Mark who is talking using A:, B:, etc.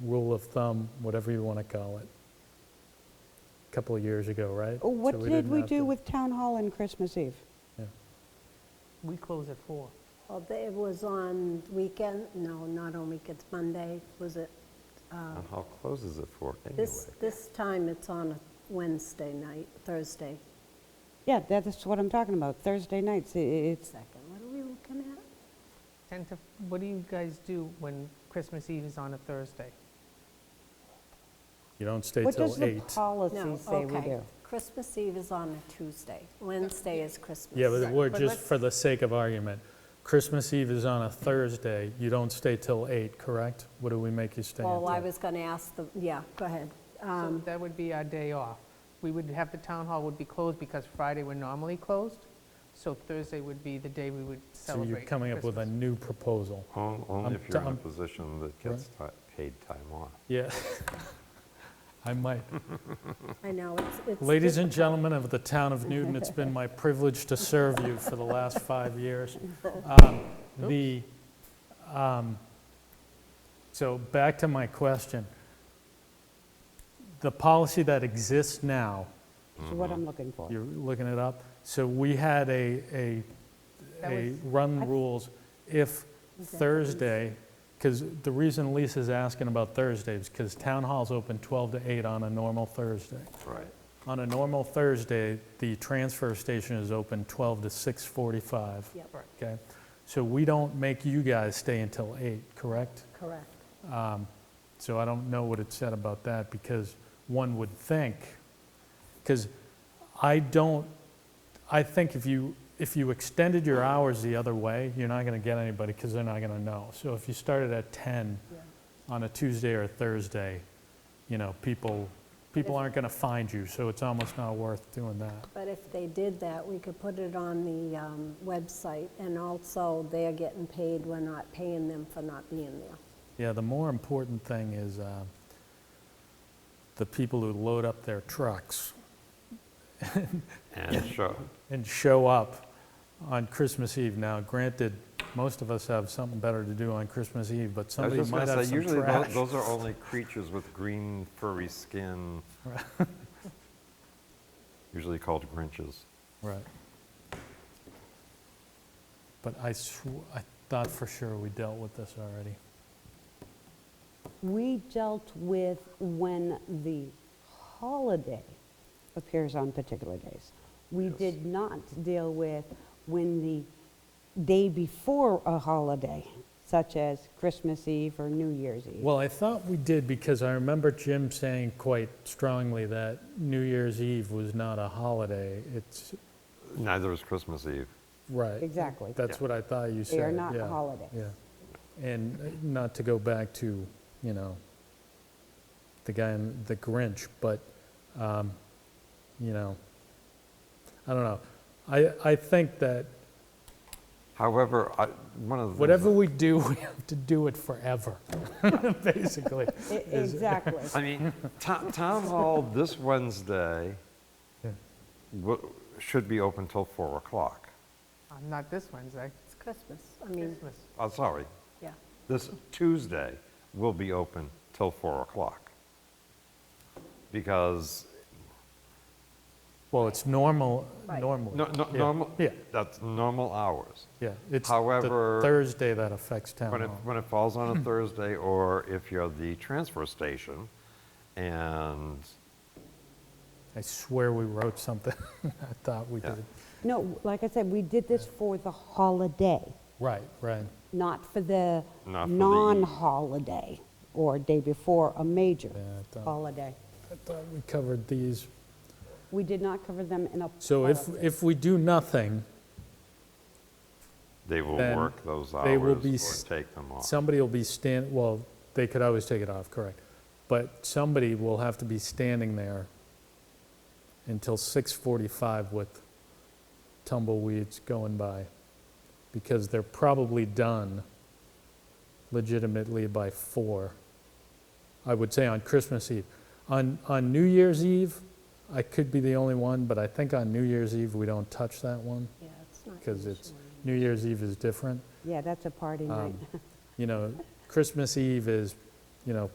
A: rule of thumb, whatever you want to call it, a couple of years ago, right?
B: Oh, What
A: So
B: did
A: didn't
B: we
A: have to-
B: do with Town Hall and Christmas Eve?
A: yeah.
C: We close at four.
D: Well, they- it was on weekend, no, not on weekends, Monday, was it?
E: Town hall closes at four anyway.
D: This, this time it's on a Wednesday night, Thursday
B: Yeah, that's what I'm talking about, Thursday nights, i- i- it's,
D: second. What are we looking at?
C: 10 to, what do you guys do when Christmas Eve is on a Thursday?
A: You don't stay
B: what does
A: till
B: the
A: eight.
D: No,
B: policy say we
D: okay.
B: do?
D: Christmas Eve is on a Tuesday. Wednesday is Christmas.
A: Yeah, but we're
C: but
A: just,
C: let's-
A: for the sake of argument, Christmas Eve is on a Thursday, you don't stay till eight, correct? What do we make you stay until?
D: Well, I was going to ask the, yeah, go ahead. Uh, Um,
C: So that would be our day off. We would have, the town hall would be closed because Friday we're normally closed, so Thursday would be the day we would
A: So
C: celebrate
A: you're coming up with a
C: Christmas.
A: new proposal.
E: On- Only
A: I'm
E: if you're in a
A: done.
E: position that gets ti- paid time off.
A: Yeah. I might.
D: I know, it's, it's.
A: Ladies and gentlemen of the town of Newton, it's been my privilege to serve you for the last five years. Um, The, um, so back to my question. The policy that exists now,
B: That's
A: Mm-hmm.
B: what I'm looking for.
A: you're looking it up, so we had a, a,
C: That
A: a
C: was-
A: run the rules if Thursday, because the reason Lisa's asking about Thursdays because town hall's open 12 to 8 on a normal Thursday.
E: Right.
A: On a normal Thursday, the transfer station is open 12 to 6:45.
D: Yep,
C: Right.
A: Okay? So we don't make you guys stay until 8, correct?
D: correct.
A: So I don't know what it said about that, because one would think, because I don't, I think if you, if you extended your hours the other way, you're not going to get anybody, because they're not going to know. So if you started at 10 on a Tuesday or a Thursday, you know, people, people aren't going to find you, so it's almost not worth doing that.
D: But if they did that, we could put it on the um, website, and also they're getting paid, we're not paying them for not being there.
A: Yeah, the more important thing is uh, the people who load up their trucks.
E: And sure,
A: and show up on Christmas Eve. Now, granted, most of us have something better to do on Christmas Eve, but
E: I was
A: somebody
E: just
A: might
E: gonna
A: have
E: say,
A: some
E: usually tho-
A: trash.
E: those are only creatures with green furry skin. Usually called Grinches.
A: Right. But I sw- I thought for sure we dealt with this already.
B: We dealt with when the holiday appears on particular days. We did not deal with when the day before a holiday, such as Christmas Eve or New Year's Eve.
A: Well, I thought we did because I remember Jim saying quite strongly that New Year's Eve was not a holiday. It's,
E: Neither is Christmas Eve.
A: right.
B: Exactly.
A: That's
E: Yeah.
A: what I thought you said.
B: They are not
A: yeah,
B: holidays.
A: Yeah. And uh, not to go back to, you know, the guy in The Grinch, but, um, you know, I don't know. I, I think that
E: However, I- one of the. things
A: whatever
E: that-
A: we do, we have to do it forever, basically.
B: E- Exactly.
E: I mean, to- town hall this Wednesday wo- should be open till four o'clock.
C: Uh, Not this Wednesday,
D: It's Christmas, I mean,
C: Christmas.
E: I'm Uh, sorry,
D: yeah.
E: this Tuesday will be open till four o'clock. Because
A: Well, it's normal,
D: Right.
A: normally.
E: No, no,
A: Yeah.
E: normal,
A: Yeah,
E: that's normal hours.
A: yeah. It's the
E: However-
A: Thursday that affects town
E: When it,
A: hall.
E: when it falls
A: Mm-hmm.
E: on a Thursday, or if you're the transfer station, and,
A: I swear we wrote something. I thought we
E: Yeah.
A: did.
B: No, like I said, we did this for the holiday,
A: Right, right.
B: not for the
E: Not for the-
B: non-holiday or day before a major
A: Yeah, I thought-
B: holiday.
A: I thought we covered these.
B: We did not cover them in a
A: So if,
B: policy.
A: if we do nothing,
E: they will
A: Then
E: work those hours
A: they will be s-
E: or take them off.
A: somebody will be stand, well, they could always take it off, correct. But somebody will have to be standing there until 6:45 with tumbleweeds going by, because they're probably done legitimately by four. I would say on Christmas Eve. On, on New Year's Eve, I could be the only one, but I think on New Year's Eve, we don't touch that one,
D: Yeah, it's not.
A: because it's,
D: usually.
A: New Year's Eve is different Um,
B: Yeah, that's a party night.
A: you know, Christmas Eve is, you know,